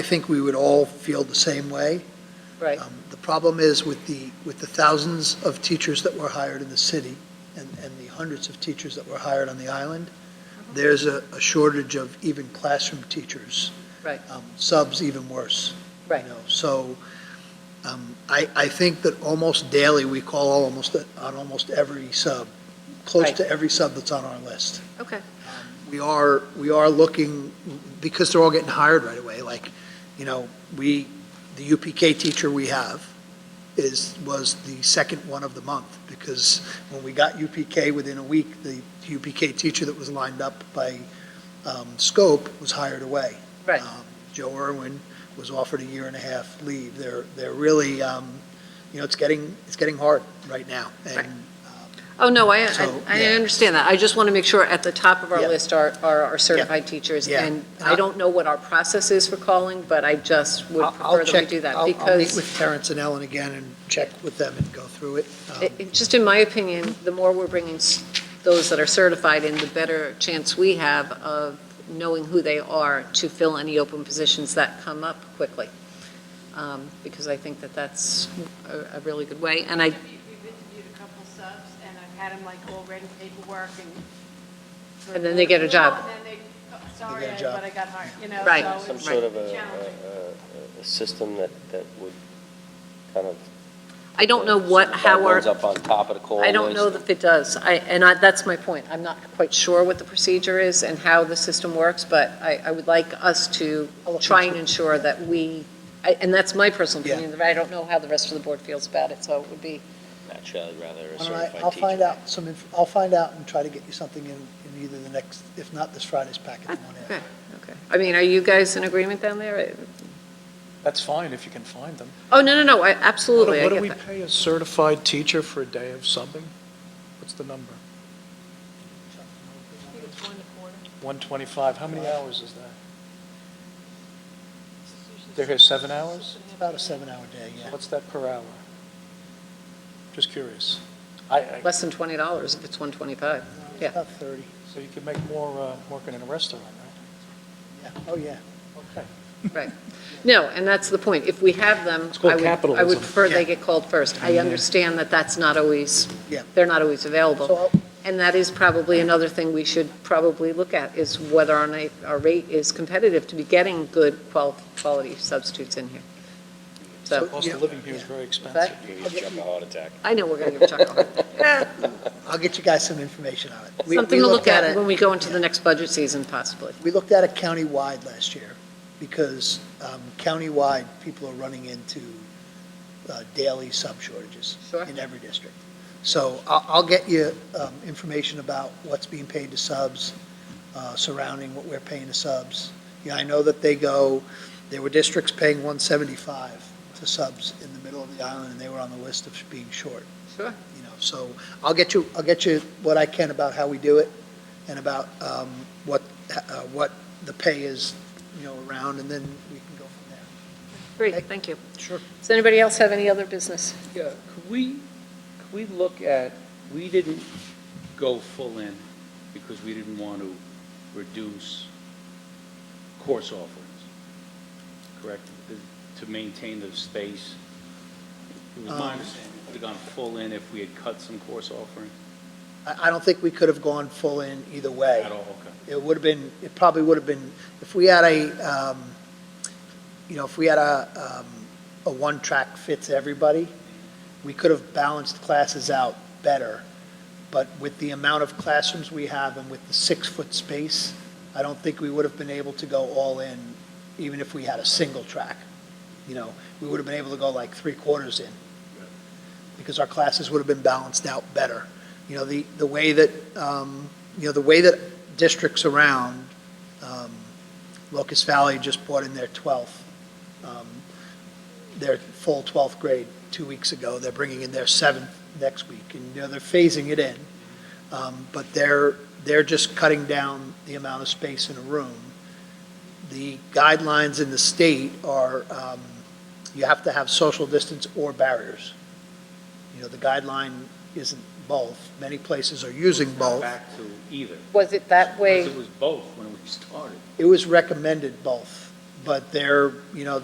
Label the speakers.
Speaker 1: think we would all feel the same way.
Speaker 2: Right.
Speaker 1: Um, The problem is with the, with the thousands of teachers that were hired in the city and, and the hundreds of teachers that were hired on the island,
Speaker 2: Uh-huh.
Speaker 1: there's a, a shortage of even classroom teachers.
Speaker 2: Right.
Speaker 1: Um, Subs even worse. you
Speaker 2: Right.
Speaker 1: know. So um, I, I think that almost daily, we call almost, on almost every sub, close
Speaker 2: Right.
Speaker 1: to every sub that's on our list
Speaker 2: Okay.
Speaker 1: we are, we are looking, because they're all getting hired right away, like, you know, we, the UPK teacher we have is, was the second one of the month, because when we got UPK within a week, the UPK teacher that was lined up by um, Scope was hired away.
Speaker 2: Right.
Speaker 1: Um, Joe Irwin was offered a year and a half leave. They're, they're really, um, you know, it's getting, it's getting hard right now.
Speaker 2: Right.
Speaker 1: And
Speaker 2: Oh, no, I, I-
Speaker 1: So,
Speaker 2: I
Speaker 1: yeah.
Speaker 2: understand that. I just want to make sure at the top of our
Speaker 1: Yeah.
Speaker 2: list are, are our certified teachers.
Speaker 1: Yeah.
Speaker 2: And I don't know what our process is for calling, but I just would
Speaker 1: I'll- I'll
Speaker 2: prefer that we
Speaker 1: check-
Speaker 2: do that.
Speaker 1: I'll- I'll meet
Speaker 2: Because,
Speaker 1: with Terrence and Ellen again and check with them and go through it. Um,
Speaker 2: it- it- just in my opinion, the more we're bringing s- those that are certified in, the better chance we have of knowing who they are to fill any open positions that come up quickly. Um, Because I think that that's a, a really good way. And I,
Speaker 3: We've interviewed a couple subs, and I've had them like all ready paperwork and.
Speaker 2: And then they get a job.
Speaker 3: And then they, oh, sorry,
Speaker 1: get a
Speaker 3: I-
Speaker 1: job.
Speaker 3: but I got hired, you know,
Speaker 2: Right.
Speaker 3: so
Speaker 2: Some
Speaker 4: some
Speaker 3: it's
Speaker 4: sort of a,
Speaker 3: challenging.
Speaker 4: a- a- a system that, that would kind of.
Speaker 2: I don't know what, how our.
Speaker 4: Runs up on top of the call
Speaker 2: I don't know
Speaker 4: list.
Speaker 2: if it does. I, and I, that's my point. I'm not quite sure what the procedure is and how the system works, but I, I would like us to try and ensure that we, I- and that's my personal
Speaker 1: Yeah.
Speaker 2: opinion, but I don't know how the rest of the board feels about it, so it would be,
Speaker 4: Actually, I'd uh, rather a
Speaker 1: All right,
Speaker 4: certified teacher.
Speaker 1: I'll find out some, inf- I'll find out and try to get you something in, in either the next, if not this Friday's packet, the one after.
Speaker 2: okay, okay. I mean, are you guys in agreement down there?
Speaker 5: That's fine if you can find them.
Speaker 2: Oh, no, no, no, I- absolutely, I
Speaker 5: What do
Speaker 2: get
Speaker 5: we
Speaker 2: that.
Speaker 5: pay a certified teacher for a day of subbing? What's the number? One twenty-five, how many hours is that? They're here seven hours?
Speaker 1: It's about a seven-hour day, yeah.
Speaker 5: What's that per hour? Just curious. I, I,
Speaker 2: Less than twenty dollars if it's one twenty-five. Yeah.
Speaker 1: About 30,
Speaker 5: so you could make more, uh, working in a restaurant,
Speaker 1: yeah, oh, yeah.
Speaker 5: right? Okay.
Speaker 2: No, and that's the point. If we have them,
Speaker 5: It's called
Speaker 2: I would, I would
Speaker 5: capitalism.
Speaker 2: prefer they
Speaker 1: Yeah.
Speaker 2: get called first. I understand that that's not always,
Speaker 1: Yeah.
Speaker 2: they're not always available.
Speaker 1: So I'll-
Speaker 2: And that is probably another thing we should probably look at, is whether our night, our rate is competitive to be getting good qual, quality substitutes in here.
Speaker 1: So-
Speaker 2: So,
Speaker 5: Cost of living here is very expensive.
Speaker 2: Exactly.
Speaker 4: You just jump a heart attack.
Speaker 2: I know we're gonna give Chuck a hard
Speaker 1: I'll get you guys some information on it. We- we
Speaker 2: Something to
Speaker 1: looked
Speaker 2: look at
Speaker 1: it-
Speaker 2: when we go into the next budget season possibly.
Speaker 1: We looked at it countywide last year, because um, countywide, people are running into uh, daily sub shortages.
Speaker 2: Sure.
Speaker 1: In every district. So I'll, I'll get you um, information about what's being paid to subs, uh, surrounding what we're paying to subs. Yeah, I know that they go, there were districts paying 175 to subs in the middle of the island, and they were on the list of being short
Speaker 2: Sure.
Speaker 1: you know, so I'll get you, I'll get you what I can about how we do it and about um, what, uh, what the pay is, you know, around, and then we can go from there.
Speaker 2: Great, thank you.
Speaker 1: Sure.
Speaker 2: Does anybody else have any other business?
Speaker 6: Yeah, could we, could we look at, we didn't go full in because we didn't want to reduce course offerings, correct? To maintain the space. It was my
Speaker 1: Um,
Speaker 6: understanding, we would have gone full in if we had cut some course offering
Speaker 1: I, I don't think we could have gone full in either way.
Speaker 6: at all, okay?
Speaker 1: It would have been, it probably would have been, if we had a, um, you know, if we had a, um, a one-track fits everybody, we could have balanced classes out better. But with the amount of classrooms we have and with the six-foot space, I don't think we would have been able to go all in, even if we had a single track. You know, we would have been able to go like three quarters in, because our classes would have been balanced out better. You know, the, the way that, um, you know, the way that districts around, um, Locust Valley just brought in their 12th, um, their full 12th grade two weeks ago. They're bringing in their seventh next week, and, you know, they're phasing it in. Um, But they're, they're just cutting down the amount of space in a room. The guidelines in the state are, um, you have to have social distance or barriers. You know, the guideline isn't both. Many places are using both.
Speaker 6: Back to either.
Speaker 2: Was it that way?
Speaker 6: Because it was both when we started.
Speaker 1: It was recommended both, but they're, you know,